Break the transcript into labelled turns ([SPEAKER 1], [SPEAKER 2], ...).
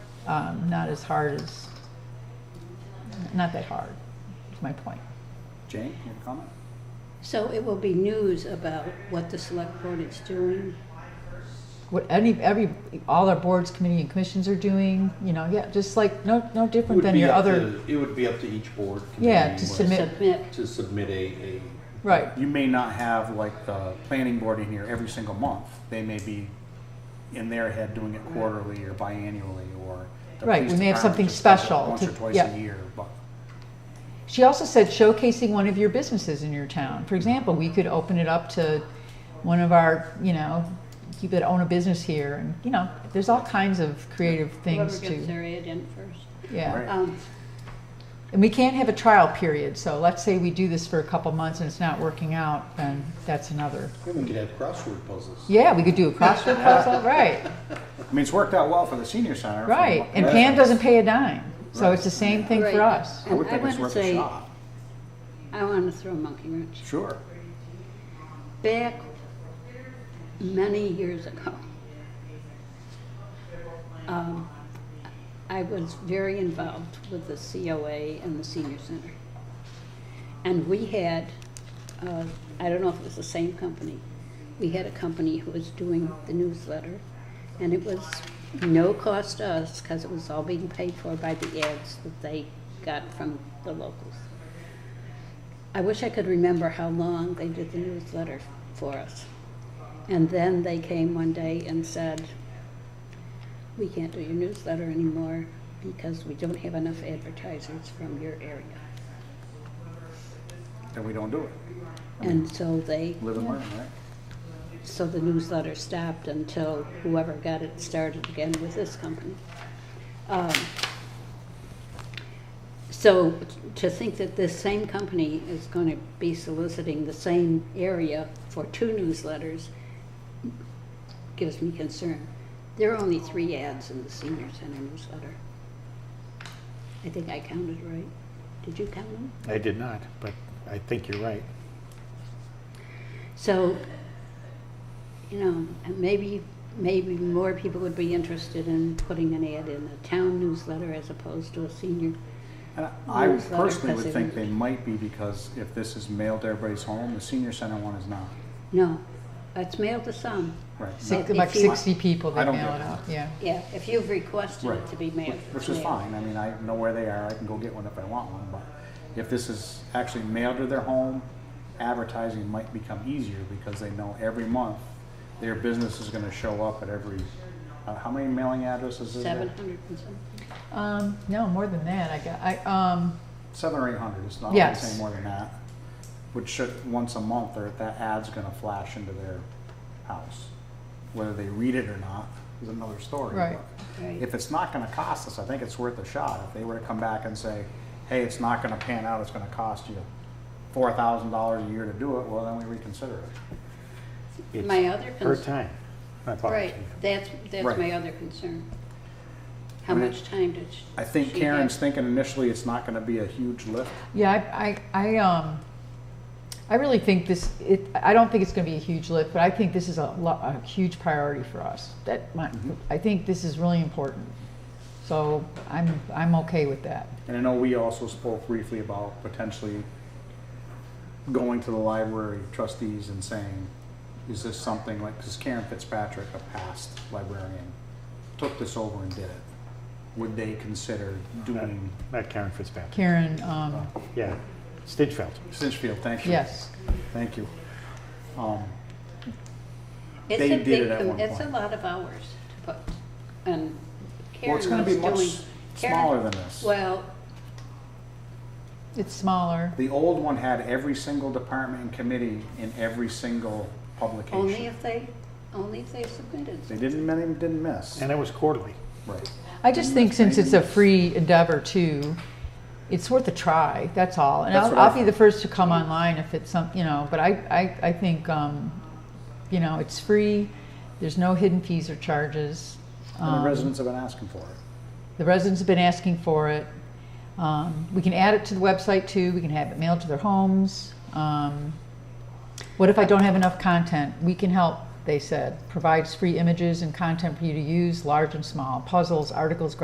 [SPEAKER 1] um, not as hard as, not that hard, is my point.
[SPEAKER 2] Jane, you have a comment?
[SPEAKER 3] So it will be news about what the select board is doing.
[SPEAKER 1] What any, every, all our boards, committee and commissions are doing, you know, yeah, just like, no, no
[SPEAKER 4] It
[SPEAKER 1] different
[SPEAKER 4] would
[SPEAKER 1] than
[SPEAKER 4] be
[SPEAKER 1] your
[SPEAKER 4] up
[SPEAKER 1] other,
[SPEAKER 4] to- It would be up to each board.
[SPEAKER 1] Yeah, to
[SPEAKER 4] committee what-
[SPEAKER 1] Submit.
[SPEAKER 3] Submit,
[SPEAKER 4] To submit a, a.
[SPEAKER 1] right.
[SPEAKER 2] You may not have like the planning board in here every single month. They may be in their head doing it quarterly or biannually or. the
[SPEAKER 1] Right,
[SPEAKER 2] police
[SPEAKER 1] we may have
[SPEAKER 2] department
[SPEAKER 1] something
[SPEAKER 2] just does it
[SPEAKER 1] special
[SPEAKER 2] Once
[SPEAKER 1] to-
[SPEAKER 2] or twice
[SPEAKER 1] yeah.
[SPEAKER 2] a year, but
[SPEAKER 1] She also said showcasing one of your businesses in your town. For example, we could open it up to one of our, you know, people that own a business here, and you know, there's all kinds of creative
[SPEAKER 3] whoever
[SPEAKER 1] things
[SPEAKER 3] gets
[SPEAKER 1] to,
[SPEAKER 3] their ad in first.
[SPEAKER 1] yeah.
[SPEAKER 2] Right.
[SPEAKER 3] Um,
[SPEAKER 1] And we can't have a trial period. So let's say we do this for a couple months and it's not working out, then that's another.
[SPEAKER 4] Yeah, we could have crossword puzzles.
[SPEAKER 1] Yeah, we could do a crossword puzzle, right?
[SPEAKER 2] I mean, it's worked out well for the senior center. for
[SPEAKER 1] Right.
[SPEAKER 2] what-
[SPEAKER 1] And Pam doesn't pay a dime, so it's the same thing
[SPEAKER 3] Right.
[SPEAKER 1] for us.
[SPEAKER 2] I would think
[SPEAKER 3] I
[SPEAKER 2] it's
[SPEAKER 3] wanna
[SPEAKER 2] worth a
[SPEAKER 3] say-
[SPEAKER 2] shot.
[SPEAKER 3] I want to throw a monkey wrench.
[SPEAKER 2] Sure.
[SPEAKER 3] Back many years ago, um, I was very involved with the COA and the senior center. And we had, uh, I don't know if it was the same company, we had a company who was doing the newsletter, and it was no cost to us, because it was all being paid for by the ads that they got from the locals. I wish I could remember how long they did the newsletter for us. And then they came one day and said, we can't do your newsletter anymore because we don't have enough advertisers from your area.
[SPEAKER 2] Then we don't do it.
[SPEAKER 3] And so they,
[SPEAKER 2] Live and learn, right?
[SPEAKER 3] so the newsletter stopped until whoever got it started again with this company. Um, So to think that this same company is going to be soliciting the same area for two newsletters gives me concern. There are only three ads in the senior center newsletter. I think I counted right. Did you count them?
[SPEAKER 5] I did not, but I think you're right.
[SPEAKER 3] So, you know, and maybe, maybe more people would be interested in putting an ad in a town newsletter as opposed to a senior.
[SPEAKER 2] And I
[SPEAKER 3] Newsletter,
[SPEAKER 2] personally would
[SPEAKER 3] because
[SPEAKER 2] think
[SPEAKER 3] it-
[SPEAKER 2] they might be because if this is mailed to everybody's home, the senior center one is not.
[SPEAKER 3] No, it's mailed to some.
[SPEAKER 2] Right.
[SPEAKER 1] Six,
[SPEAKER 3] If
[SPEAKER 1] about
[SPEAKER 3] you-
[SPEAKER 1] sixty people
[SPEAKER 2] I
[SPEAKER 1] that
[SPEAKER 2] don't
[SPEAKER 1] mail
[SPEAKER 2] get
[SPEAKER 1] it
[SPEAKER 2] it.
[SPEAKER 1] out, yeah.
[SPEAKER 3] Yeah, if you've requested
[SPEAKER 2] Right.
[SPEAKER 3] it to be mailed.
[SPEAKER 2] Which is
[SPEAKER 3] yeah.
[SPEAKER 2] fine, I mean, I know where they are, I can go get one if I want one, but if this is actually mailed to their home, advertising might become easier because they know every month their business is gonna show up at every, uh, how many mailing addresses is there?
[SPEAKER 3] Seven hundred and something.
[SPEAKER 1] Um, no, more than that, I got, I, um,
[SPEAKER 2] Seven or eight hundred, it's not gonna
[SPEAKER 1] Yes.
[SPEAKER 2] say more than that. Which should, once a month, or that ad's gonna flash into their house. Whether they read it or not is another story.
[SPEAKER 1] Right.
[SPEAKER 2] but-
[SPEAKER 3] Right.
[SPEAKER 2] if it's not gonna cost us, I think it's worth a shot. If they were to come back and say, hey, it's not gonna pan out, it's gonna cost you four thousand dollars a year to do it, well, then we reconsider it.
[SPEAKER 5] It's
[SPEAKER 3] My other
[SPEAKER 5] Per
[SPEAKER 3] concern,
[SPEAKER 5] time, not per
[SPEAKER 3] right,
[SPEAKER 5] time.
[SPEAKER 3] that's,
[SPEAKER 2] Right.
[SPEAKER 3] that's my other concern. How
[SPEAKER 2] I mean,
[SPEAKER 3] much time did she?
[SPEAKER 2] I think
[SPEAKER 3] she
[SPEAKER 2] Karen's
[SPEAKER 3] have?
[SPEAKER 2] thinking initially it's not gonna be a huge lift.
[SPEAKER 1] Yeah, I, I, I, um, I really think this, it, I don't think it's gonna be a huge lift, but I think this is a lo- a huge priority for us. That, my, I think this is really important. So I'm, I'm okay with that.
[SPEAKER 2] And I know we also spoke briefly about potentially going to the library trustees and saying, is this something like, because Karen Fitzpatrick, a past librarian, took this over and did it. Would they consider doing
[SPEAKER 5] Not Karen Fitzpatrick.
[SPEAKER 1] Karen, um,
[SPEAKER 5] Yeah, Stidfeld.
[SPEAKER 2] Sinchfield, thank you.
[SPEAKER 1] yes,
[SPEAKER 2] Thank you. Um,
[SPEAKER 3] It's
[SPEAKER 2] They
[SPEAKER 3] a
[SPEAKER 2] did
[SPEAKER 3] big
[SPEAKER 2] it at
[SPEAKER 3] com-
[SPEAKER 2] one
[SPEAKER 3] It's a
[SPEAKER 2] point.
[SPEAKER 3] lot of hours to put, and
[SPEAKER 2] Well,
[SPEAKER 3] Karen was
[SPEAKER 2] it's gonna
[SPEAKER 3] doing.
[SPEAKER 2] be much
[SPEAKER 3] Karen-
[SPEAKER 2] smaller than this.
[SPEAKER 3] Well,
[SPEAKER 1] it's smaller.
[SPEAKER 2] The old one had every single department and committee in every single
[SPEAKER 3] only
[SPEAKER 2] publication.
[SPEAKER 3] if they, only if they submitted.
[SPEAKER 2] They didn't, many didn't miss.
[SPEAKER 5] And it was quarterly.
[SPEAKER 2] Right.
[SPEAKER 1] I just think since it's a free endeavor too, it's worth a try, that's all. And
[SPEAKER 2] That's
[SPEAKER 1] I'll,
[SPEAKER 2] what I
[SPEAKER 1] I'll be the first to come online if it's some, you know, but I, I, I think, um, you know, it's free, there's no hidden fees or charges.
[SPEAKER 2] And
[SPEAKER 1] Um,
[SPEAKER 2] the residents have been asking for it.
[SPEAKER 1] The residents have been asking for it. Um, we can add it to the website too. We can have it mailed to their homes. Um, what if I don't have enough content? We can help, they said. Provides free images and content for you to use, large and small, puzzles, articles,